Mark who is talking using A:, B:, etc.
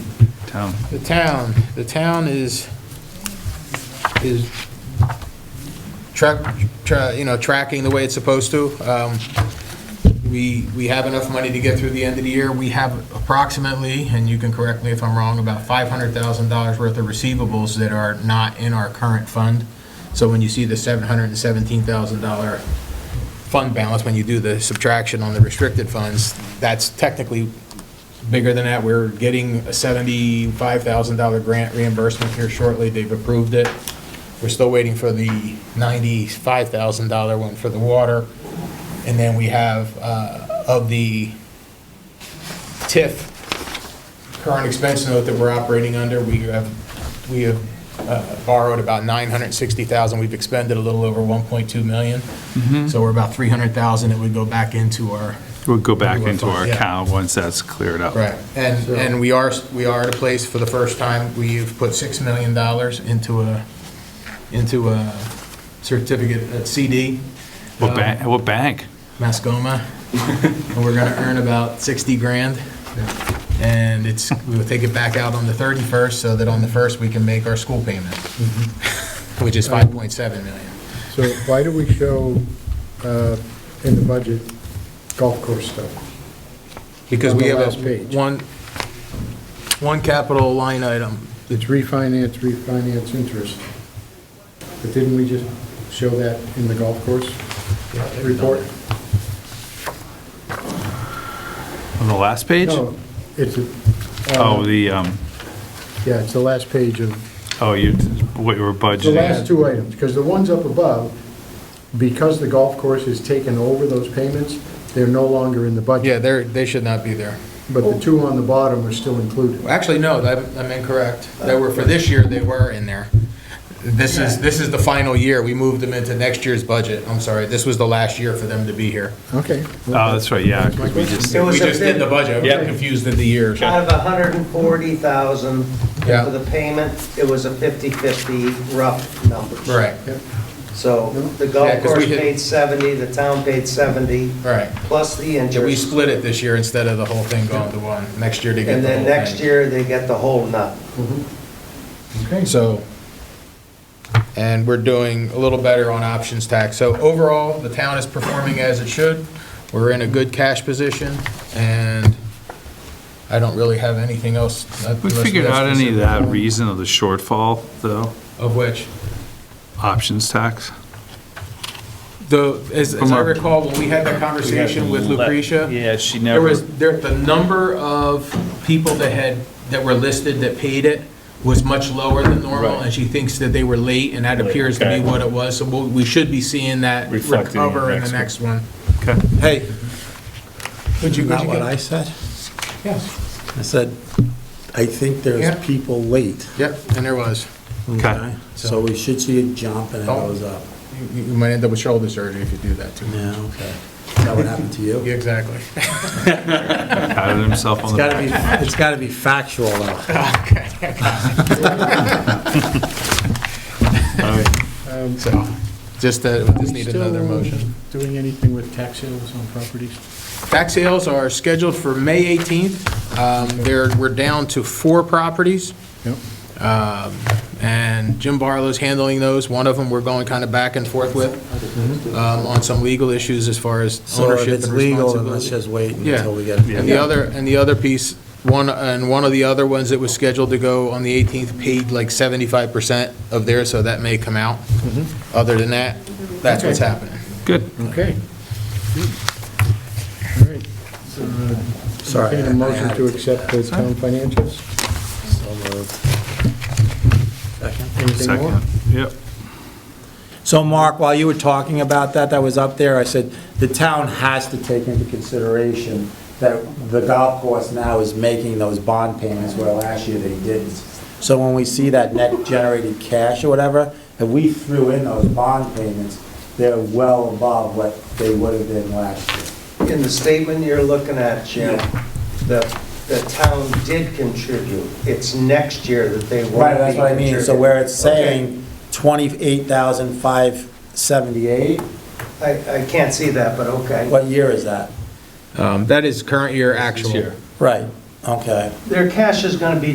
A: town.
B: The town, the town is, is track, tra- you know, tracking the way it's supposed to. Um, We, we have enough money to get through the end of the year. We have approximately, and you can correct me if I'm wrong, about $500,000 worth of receivables that are not in our current fund. So when you see the $717,000 fund balance, when you do the subtraction on the restricted funds, that's technically bigger than that. We're getting a $75,000 grant reimbursement here shortly. They've approved it. We're still waiting for the $95,000 one for the water. And then we have, uh, of the TIF current expense note that we're operating under, we have, we have uh, borrowed about 960,000. We've expended a little over 1.2 million. So we're about 300,000 that would go back into our
A: We'll go back into our
B: Yeah.
A: account once that's cleared up.
B: Right, and, and we are, we are at a place, for the first time, we've put $6 million into a, into a certificate, a CD,
A: What bank, what bank?
B: Mascoma, and we're gonna earn about 60 grand. And it's, we will take it back out on the 31st, so that on the 1st, we can make our school payment, which is 5.7 million.
C: So why do we show uh, in the budget golf course stuff?
B: Because
C: On
B: we
C: the
B: have
C: last
B: a,
C: page.
B: one, one capital line item.
C: It's refinance, refinance interest. But didn't we just show that in the golf course report?
A: On the last page?
C: No, it's, a-
A: Oh, the, um,
C: yeah, it's the last page of,
A: oh, you, what you were
C: the last
A: budgeting.
C: two items, because the ones up above, because the golf course has taken over those payments, they're no longer in the
B: Yeah,
C: budget.
B: they're, they should not be there.
C: But the two on the bottom are still included.
B: Actually, no, that- I'm incorrect. They were, for this year, they were in there. This is, this is the final year. We moved them into next year's budget. I'm sorry, this was the last year for them to be here.
C: Okay.
A: Oh, that's right, yeah, 'cause we just,
D: It was
B: We
D: a
B: just did the budget. We
A: Yeah.
B: got confused in the years.
D: Out of 140,000
B: Yeah.
D: for the payment, it was a 50/50 rough number.
B: Right,
D: So the
B: Yeah,
D: golf
B: 'cause we
D: course
B: had-
D: paid 70, the town paid 70,
B: right.
D: plus the
B: So we
D: interest.
B: split it this year instead of the whole thing going to one. Next year they get
D: And
B: the whole
D: then next
B: thing.
D: year, they get the whole nut.
C: Okay.
B: So, and we're doing a little better on options tax. So overall, the town is performing as it should. We're in a good cash position, and I don't really have anything else.
A: we figured out any of that reason of the shortfall, though,
B: Of which,
A: options tax?
B: the, as as
A: From
B: I
A: our-
B: recall, when we had that conversation with Lucretia.
A: Yeah, she
B: There
A: never,
B: was, there, the number of people that had, that were listed that paid it was much lower than normal,
E: Right.
B: and she thinks that they were late, and that
E: Late,
B: appears to be
E: okay.
B: what it was, so we'll- we should be seeing that
E: Reflected in
B: recover in the
E: next
B: next one.
A: okay,
B: Hey. Would you, would
F: Not
B: you
F: what
B: get?
F: I said.
B: Yes.
F: I said, I think there's
B: Yeah.
F: people late.
B: Yep, and there was.
A: okay.
F: So we should see it jump and it
B: Oh.
F: goes up.
B: You, you might end up with shoulder surgery if you do that too much.
F: Yeah, okay. Is that what happened to you?
B: Yeah, Exactly.
A: Patted himself on
F: It's
A: the
F: gotta
A: back.
F: be, it's gotta be factual though.
A: All right.
C: Um,
B: So, just, uh,
C: Are
B: just
C: we
B: need
C: still
B: another motion.
C: Doing anything with tax sales on properties?
B: Tax sales are scheduled for May 18th. Um, there, we're down to four properties.
C: Yep.
B: Um, And Jim Barlow's handling those. One of them, we're going kind of back and forth with um, on some legal issues as far as
F: So if
B: ownership
F: it's
B: and
F: legal, then let's
B: responsibility.
F: just wait
B: Yeah.
F: until we get.
B: And the other, and the other piece, one, and one of the other ones that was scheduled to go on the 18th paid like 75% of theirs, so that may come out.
F: Mm-hmm.
B: Other than that, that's what's happening.
A: Good.
C: Okay. All right. Uh,
F: Sorry.
C: Entertain a motion to accept the town financials?
F: So moved. Second.
C: Anything more?
A: Second, yep.
F: So Mark, while you were talking about that, that was up there, I said, the town has to take into consideration that the golf course now is making those bond payments where last year they didn't. So when we see that net generated cash or whatever, if we threw in those bond payments, they're well above what they would have been last year.
D: In the statement you're looking at, Jim, the, the town did contribute. It's next year that they won't be
F: Right, that's what I mean, so where it's
D: contributing.
F: saying twenty-eight thousand five seventy-eight,
D: Okay. I, I can't see that, but okay.
F: what year is that?
B: Um, That is current year actual.
F: Right, okay.
D: Their cash is gonna be